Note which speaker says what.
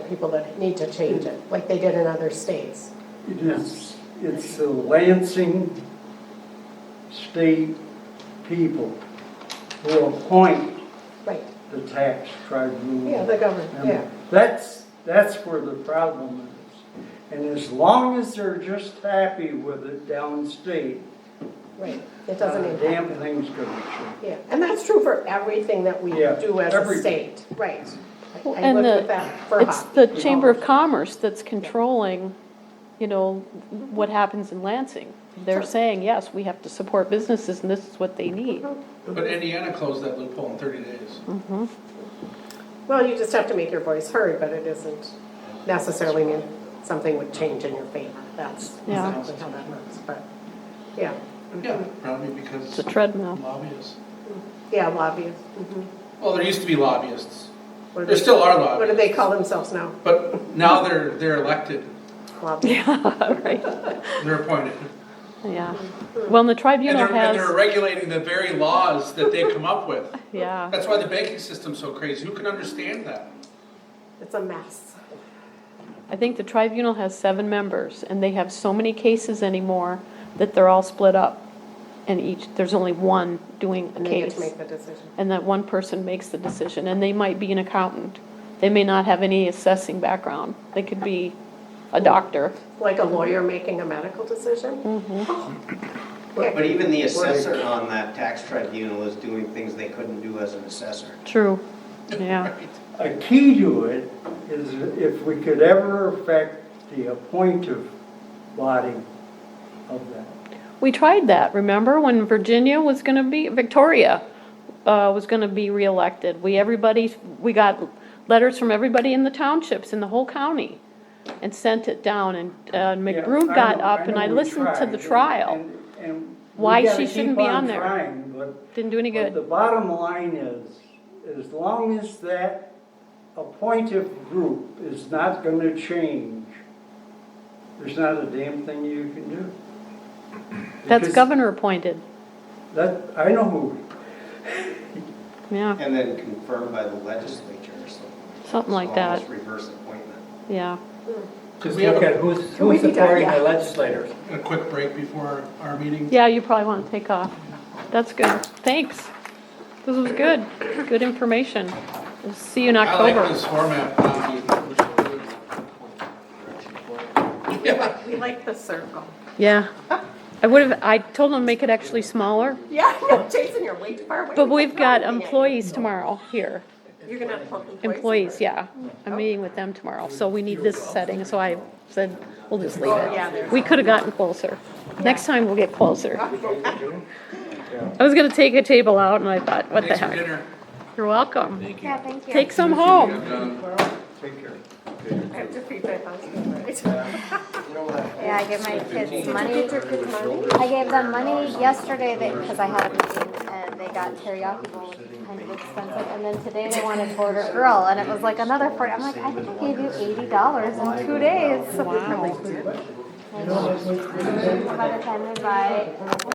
Speaker 1: people that need to change it, like they did in other states.
Speaker 2: It is, it's the Lansing state people who appoint
Speaker 1: Right,
Speaker 2: the tax tribunal.
Speaker 1: yeah, the government, yeah.
Speaker 2: And That's, that's where the problem is. And as long as they're just happy with it downstate,
Speaker 1: Right, it doesn't
Speaker 2: not
Speaker 3: Uh,
Speaker 2: a
Speaker 1: impact,
Speaker 2: damn thing's gonna change.
Speaker 1: yeah, and that's true for everything that we
Speaker 2: Yeah,
Speaker 1: do as a
Speaker 2: everything.
Speaker 1: state, right. I-
Speaker 4: Well,
Speaker 1: I
Speaker 4: and
Speaker 1: lived
Speaker 4: the-
Speaker 1: with that for
Speaker 4: It's
Speaker 1: hockey.
Speaker 4: the Chamber of Commerce that's controlling, you know, what happens in Lansing. They're
Speaker 1: Sure.
Speaker 4: saying, yes, we have to support businesses and this is what they need.
Speaker 3: But Indiana closed that loophole in thirty days.
Speaker 4: Mm-hmm.
Speaker 1: Well, you just have to make your voice heard, but it isn't necessarily mean something would change in your favor, that's
Speaker 4: Yeah.
Speaker 1: exactly how that works, but, yeah,
Speaker 3: Yeah, probably
Speaker 4: It's a
Speaker 3: because
Speaker 4: treadmill.
Speaker 3: lobbyists.
Speaker 1: yeah, lobbyists. mhm.
Speaker 3: Well, there used to be lobbyists,
Speaker 1: What do
Speaker 3: There
Speaker 1: they-
Speaker 3: still are
Speaker 1: What do they
Speaker 3: lobbyists.
Speaker 1: call themselves now?
Speaker 3: but now they're, they're elected,
Speaker 1: Lobbyists.
Speaker 4: Yeah, right,
Speaker 3: they're appointed.
Speaker 4: yeah. Well, and the
Speaker 3: And
Speaker 4: tribunal
Speaker 3: they're, and they're
Speaker 4: has,
Speaker 3: regulating the very laws that they come up with.
Speaker 4: yeah,
Speaker 3: That's why the banking system's so crazy. Who can understand that?
Speaker 1: It's a mess.
Speaker 4: I think the tribunal has seven members and they have so many cases anymore that they're all split up. And each, there's only one doing a
Speaker 1: And they get
Speaker 4: case.
Speaker 1: to make the decision.
Speaker 4: and that one person makes the decision, and they might be an accountant. They may not have any assessing background. They could be a doctor.
Speaker 1: Like a lawyer making a medical decision?
Speaker 4: Mm-hmm.
Speaker 1: Oh.
Speaker 5: But even the assessor on that tax tribunal is doing things they couldn't do as an assessor.
Speaker 4: True. Yeah,
Speaker 2: A key to it is if we could ever affect the appointive body of that.
Speaker 4: we tried that, remember, when Virginia was gonna be, Victoria, uh, was gonna be reelected. We, everybody, we got letters from everybody in the townships in the whole county and sent it down, and, uh, McBroom
Speaker 2: Yeah, I
Speaker 4: got
Speaker 2: know-
Speaker 4: up and
Speaker 2: know
Speaker 4: I
Speaker 2: we
Speaker 4: listened to
Speaker 2: tried,
Speaker 4: the trial.
Speaker 2: and- and we
Speaker 4: Why
Speaker 2: gotta
Speaker 4: she shouldn't
Speaker 2: keep
Speaker 4: be on there.
Speaker 2: trying, but-
Speaker 4: Didn't do any
Speaker 2: But the
Speaker 4: good.
Speaker 2: bottom line is, as long as that appointive group is not gonna change, there's not a damn thing you can do.
Speaker 4: That's
Speaker 2: Because
Speaker 4: governor appointed,
Speaker 2: That, I know who,
Speaker 4: yeah,
Speaker 5: And then confirmed by the legislature or something.
Speaker 4: Something like
Speaker 5: It's almost
Speaker 4: that.
Speaker 5: reverse appointment.
Speaker 4: yeah.
Speaker 3: Could
Speaker 6: Just
Speaker 3: we have
Speaker 6: look
Speaker 3: a,
Speaker 6: at who's,
Speaker 1: Can we
Speaker 6: who's
Speaker 1: be done?
Speaker 6: supporting
Speaker 1: Yeah.
Speaker 6: the legislators.
Speaker 3: a quick break before our meeting?
Speaker 4: Yeah, you probably want to take off. That's good. Thanks. This was good. Good information. We'll see you in
Speaker 3: I like
Speaker 4: October.
Speaker 3: this format. Tom. Yeah.
Speaker 1: We like the circle.
Speaker 4: Yeah. I would have, I told them to make it actually smaller,
Speaker 1: Yeah, no, Jason, you're way too far away.
Speaker 4: but we've got
Speaker 1: You're not
Speaker 4: employees tomorrow here.
Speaker 1: meeting. You're gonna have employees.
Speaker 4: Employees, yeah. I'm meeting with them tomorrow, so we need this setting, so I said, we'll just leave
Speaker 1: Oh, yeah,
Speaker 4: it.
Speaker 1: there's-
Speaker 4: We could have gotten closer. Next time we'll get closer. I was gonna take a table out and I thought, what the
Speaker 3: Thanks for
Speaker 4: heck? Oh.
Speaker 3: dinner.
Speaker 4: You're welcome.
Speaker 7: Yeah, thank you.
Speaker 4: Take some home.
Speaker 3: I'm done.
Speaker 2: take care.
Speaker 1: I have to feed my husband, right?
Speaker 7: Yeah, I give my kids money. I gave them money yesterday because I had a meeting and they got teriyaki bowl, which is kind of expensive. And then today they wanted border girl and it was like another forty. I'm like, I think I gave you eighty dollars in two days. Wow. By the time they buy